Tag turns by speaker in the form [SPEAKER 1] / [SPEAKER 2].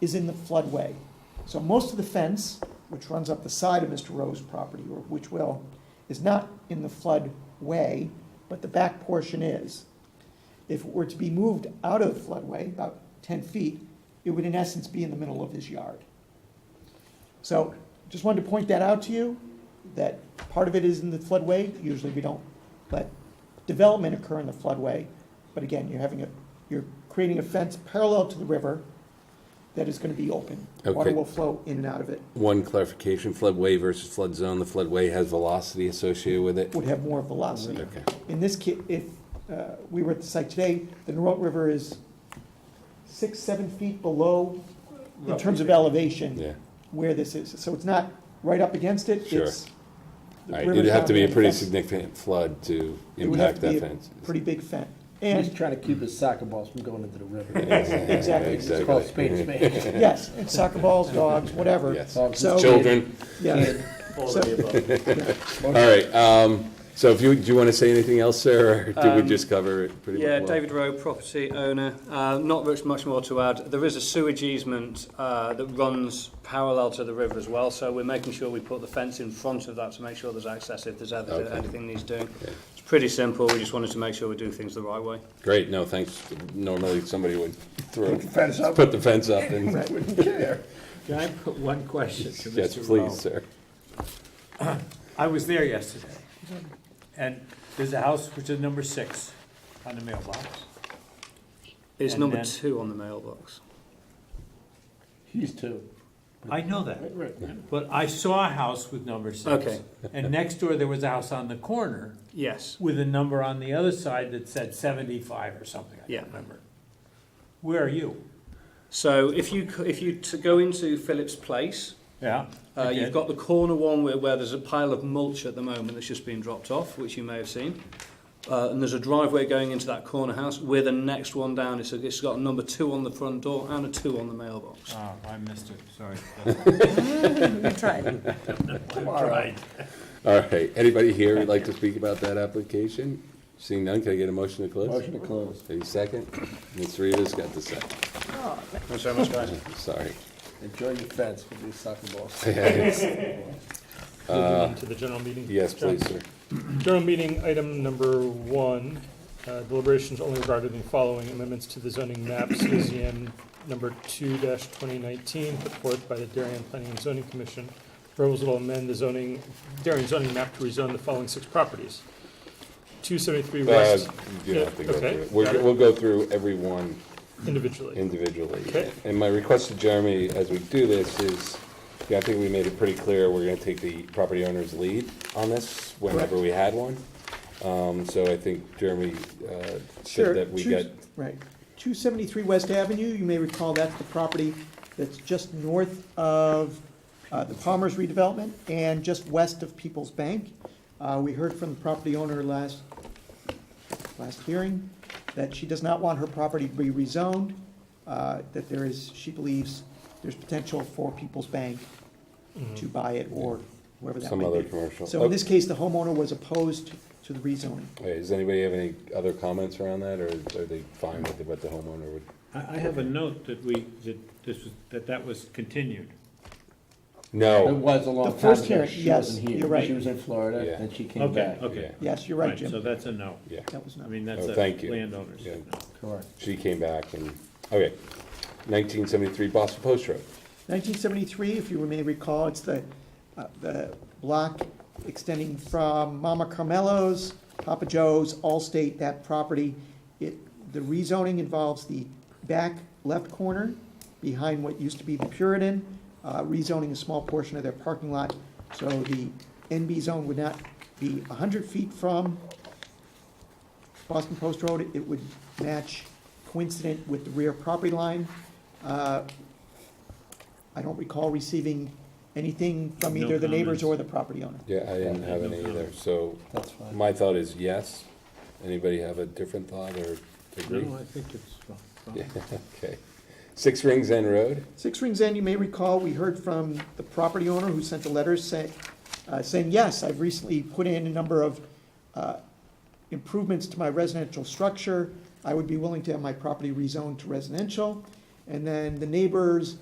[SPEAKER 1] is in the floodway. So most of the fence, which runs up the side of Mr. Rowe's property, or which will, is not in the floodway, but the back portion is. If it were to be moved out of the floodway, about ten feet, it would in essence be in the middle of his yard. So, just wanted to point that out to you, that part of it is in the floodway, usually we don't let development occur in the floodway, but again, you're having a, you're creating a fence parallel to the river that is gonna be open. Water
[SPEAKER 2] Okay.
[SPEAKER 1] will flow in and out of it,
[SPEAKER 2] One clarification, floodway versus flood zone, the floodway has velocity associated with it?
[SPEAKER 1] would have more velocity.
[SPEAKER 2] Okay,
[SPEAKER 1] In this case, if uh, we were at the site today, the Norot River is six, seven feet below, in terms of elevation,
[SPEAKER 2] yeah.
[SPEAKER 1] where this is. So it's not right up against it,
[SPEAKER 2] Sure.
[SPEAKER 1] it's. the
[SPEAKER 2] All right,
[SPEAKER 1] river's
[SPEAKER 2] it'd have to be a
[SPEAKER 1] down
[SPEAKER 2] pretty
[SPEAKER 1] and the fence-
[SPEAKER 2] significant flood to
[SPEAKER 1] it would have
[SPEAKER 2] impact
[SPEAKER 1] to be
[SPEAKER 2] that
[SPEAKER 1] a
[SPEAKER 2] fence.
[SPEAKER 1] Pretty big fence.
[SPEAKER 3] He's
[SPEAKER 1] And,
[SPEAKER 3] trying to keep his soccer balls from going into the river.
[SPEAKER 2] Exactly.
[SPEAKER 1] Exactly.
[SPEAKER 3] It's called spade a spade.
[SPEAKER 1] yes, and soccer balls, dogs, whatever.
[SPEAKER 2] Yes.
[SPEAKER 1] So-
[SPEAKER 2] Children,
[SPEAKER 1] Yeah. So-
[SPEAKER 2] all right, um, so if you, do you want to say anything else, sir, or did we
[SPEAKER 4] Um,
[SPEAKER 2] just cover it pretty much?
[SPEAKER 4] Yeah,
[SPEAKER 2] well?
[SPEAKER 4] David Rowe, property owner. Uh, Not much, much more to add. There is a sewage easement uh, that runs parallel to the river as well, so we're making sure we put the fence in front of that to make sure there's access if there's ever-
[SPEAKER 2] Okay.
[SPEAKER 4] anything needs doing.
[SPEAKER 2] Okay.
[SPEAKER 4] It's pretty simple, we just wanted to make sure we do things the right way.
[SPEAKER 2] Great, no, thanks, normally somebody would throw,
[SPEAKER 3] Put the fence up.
[SPEAKER 2] put the fence up and,
[SPEAKER 1] Right.
[SPEAKER 3] Wouldn't care.
[SPEAKER 5] Can I put one question to Mr.
[SPEAKER 2] yes,
[SPEAKER 5] Rowe?
[SPEAKER 2] please, sir.
[SPEAKER 5] I was there yesterday, and there's a house which is number six on the mailbox.
[SPEAKER 4] It's
[SPEAKER 5] And
[SPEAKER 4] number
[SPEAKER 5] then-
[SPEAKER 4] two on the mailbox.
[SPEAKER 3] He's two.
[SPEAKER 5] I know that, but I saw a house with number six.
[SPEAKER 4] Okay.
[SPEAKER 5] And next door, there was a house on the corner
[SPEAKER 4] Yes,
[SPEAKER 5] with a number on the other side that said seventy-five or something, I
[SPEAKER 4] Yeah.
[SPEAKER 5] can't remember. Where are you?
[SPEAKER 4] so if you, c- if you t- go into Phillips Place,
[SPEAKER 5] Yeah.
[SPEAKER 4] Uh,
[SPEAKER 5] okay.
[SPEAKER 4] you've got the corner one where, where there's a pile of mulch at the moment that's just been dropped off, which you may have seen. Uh, and there's a driveway going into that corner house. We're the next one down. It's, it's got a number two on the front door and a two on the mailbox.
[SPEAKER 5] Oh, I missed it, sorry.
[SPEAKER 3] All right.
[SPEAKER 2] All right, anybody here would like to speak about that application? Seeing none, can I get a motion to close?
[SPEAKER 3] Motion to close.
[SPEAKER 2] Any second? Ms. Rivas got the second.
[SPEAKER 4] Thanks very much, guys.
[SPEAKER 2] Sorry.
[SPEAKER 3] Enjoy your fence with these soccer balls.
[SPEAKER 6] Moving on to the general meeting.
[SPEAKER 2] Yes, please, sir.
[SPEAKER 6] General meeting, item number one, uh, deliberations only regarding the following amendments to the zoning map, CZN number two twenty nineteen, put forth by the Darien Planning and Zoning Commission. Proposal will amend the zoning, Darien zoning map to rezone the following six properties. Two seventy-three
[SPEAKER 2] Uh,
[SPEAKER 6] west
[SPEAKER 2] You don't have to go
[SPEAKER 6] Yeah,
[SPEAKER 2] through
[SPEAKER 6] okay.
[SPEAKER 2] it. We're-
[SPEAKER 6] Got it.
[SPEAKER 2] We'll go through every one
[SPEAKER 6] individually.
[SPEAKER 2] individually.
[SPEAKER 6] Okay.
[SPEAKER 2] And my request to Jeremy, as we do this, is, yeah, I think we made it pretty clear, we're gonna take the property owner's lead on this, whenever we had one. Um, So I think Jeremy uh,
[SPEAKER 1] Sure.
[SPEAKER 2] said that we
[SPEAKER 1] two-
[SPEAKER 2] got,
[SPEAKER 1] Right. 273 West Avenue, you may recall that's the property that's just north of uh, the Palmer's redevelopment and just west of People's Bank. Uh, We heard from the property owner last, last hearing that she does not want her property to be rezoned, uh, that there is, she believes there's potential for People's Bank to buy it or whoever that
[SPEAKER 2] Mm-hmm. Some
[SPEAKER 1] may be.
[SPEAKER 2] other commercial. Oh.
[SPEAKER 1] So in this case, the homeowner was opposed to the rezoning.
[SPEAKER 2] Hey, does anybody have any other comments around that, or are they fine with what the homeowner would?
[SPEAKER 5] I, I have a note that we, that this was, that that was continued.
[SPEAKER 3] It
[SPEAKER 2] No,
[SPEAKER 3] was a long
[SPEAKER 1] The
[SPEAKER 3] time
[SPEAKER 1] first
[SPEAKER 3] ago.
[SPEAKER 1] hearing,
[SPEAKER 3] She
[SPEAKER 1] yes,
[SPEAKER 3] wasn't here.
[SPEAKER 1] you're right.
[SPEAKER 3] She was in Florida,
[SPEAKER 2] Yeah.
[SPEAKER 3] and she came
[SPEAKER 5] Okay,
[SPEAKER 3] back.
[SPEAKER 5] okay.
[SPEAKER 1] Yes, you're right,
[SPEAKER 5] So
[SPEAKER 1] Jim.
[SPEAKER 5] that's a no.
[SPEAKER 2] yeah,
[SPEAKER 1] That was not.
[SPEAKER 5] I mean, that's
[SPEAKER 2] Oh,
[SPEAKER 5] a
[SPEAKER 2] thank you.
[SPEAKER 5] landowner's
[SPEAKER 2] Yeah.
[SPEAKER 5] no.
[SPEAKER 3] Correct.
[SPEAKER 2] she came back and, okay. Nineteen seventy-three Boston Post Road.
[SPEAKER 1] 1973, if you may recall, it's the, uh, the block extending from Mama Carmelo's, Papa Joe's, Allstate, that property. It, the rezoning involves the back left corner behind what used to be the Puritan, uh, rezoning a small portion of their parking lot. So the NB zone would not be 100 feet from Boston Post Road. It would match coincident with the rear property line. Uh, I don't recall receiving anything from
[SPEAKER 5] No
[SPEAKER 1] either the neighbors
[SPEAKER 5] comments.
[SPEAKER 1] or the property owner.
[SPEAKER 2] Yeah, I didn't have any either, so
[SPEAKER 3] That's fine.
[SPEAKER 2] my thought is yes. Anybody have a different thought or agree?
[SPEAKER 5] I think it's fine.
[SPEAKER 2] Yeah, okay. Six Rings End Road,
[SPEAKER 1] Six Rings End, you may recall, we heard from the property owner who sent a letter saying, uh, saying, yes, I've recently put in a number of, uh, improvements to my residential structure. I would be willing to have my property rezoned to residential. And then the neighbors